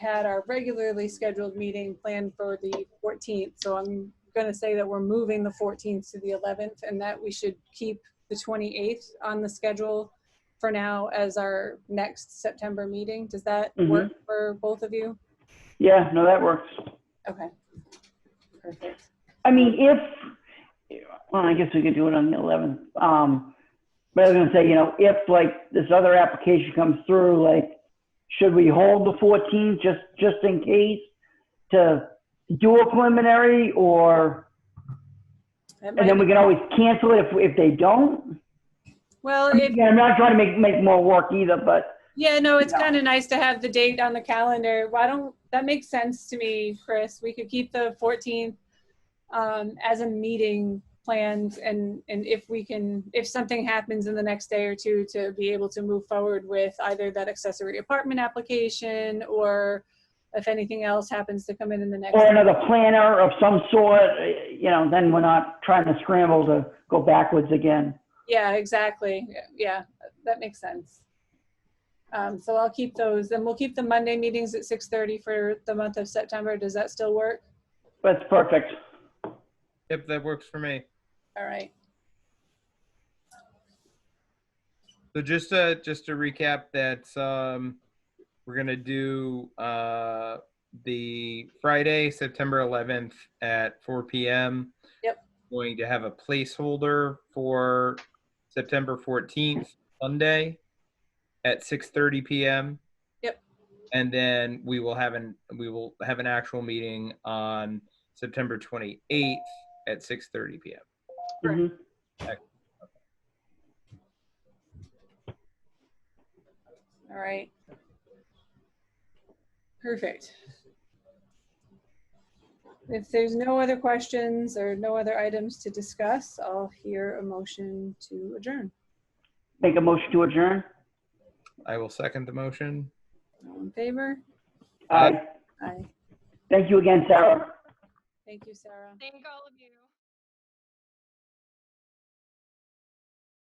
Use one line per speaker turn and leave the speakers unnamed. had our regularly scheduled meeting planned for the 14th. So I'm going to say that we're moving the 14th to the 11th and that we should keep the 28th on the schedule for now as our next September meeting. Does that
Mhm.
work for both of you?
Yeah, no, that works.
Okay. Perfect.
I mean, if, well, I guess we could do it on the 11th. Um, but I was gonna say, you know, if like this other application comes through, like, should we hold the 14th just, just in case to do a preliminary or,
That
and then
might-
we can always cancel it if, if they don't?
Well,
I
it,
mean, I'm not trying to make, make more work either, but
yeah, no, it's
No.
kind of nice to have the date on the calendar. Why don't, that makes sense to me, Chris. We could keep the 14th um, as a meeting planned and, and if we can, if something happens in the next day or two to be able to move forward with either that accessory apartment application or if anything else happens to come in in the next.
or another planner of some sort, eh, you know, then we're not trying to scramble to go backwards again.
Yeah, exactly. Yeah, that makes sense. Um, so I'll keep those and we'll keep the Monday meetings at six thirty for the month of September. Does that still work?
That's perfect.
Yep, that works for me.
All right.
So just uh just to recap that um we're gonna do uh the Friday, September eleventh at four PM.
Yep.
Going to have a placeholder for September fourteenth, Sunday at six thirty PM.
Yep.
And then we will have an we will have an actual meeting on September twenty eighth at six thirty PM.
Right.
Mhm.
All right. Perfect. If there's no other questions or no other items to discuss, I'll hear a motion to adjourn.
Make a motion to adjourn?
I will second the motion.
All in favor?
Aye.
Aye.
Aye.
Thank you again, Sarah.
Thank you, Sarah.
Thank all of you.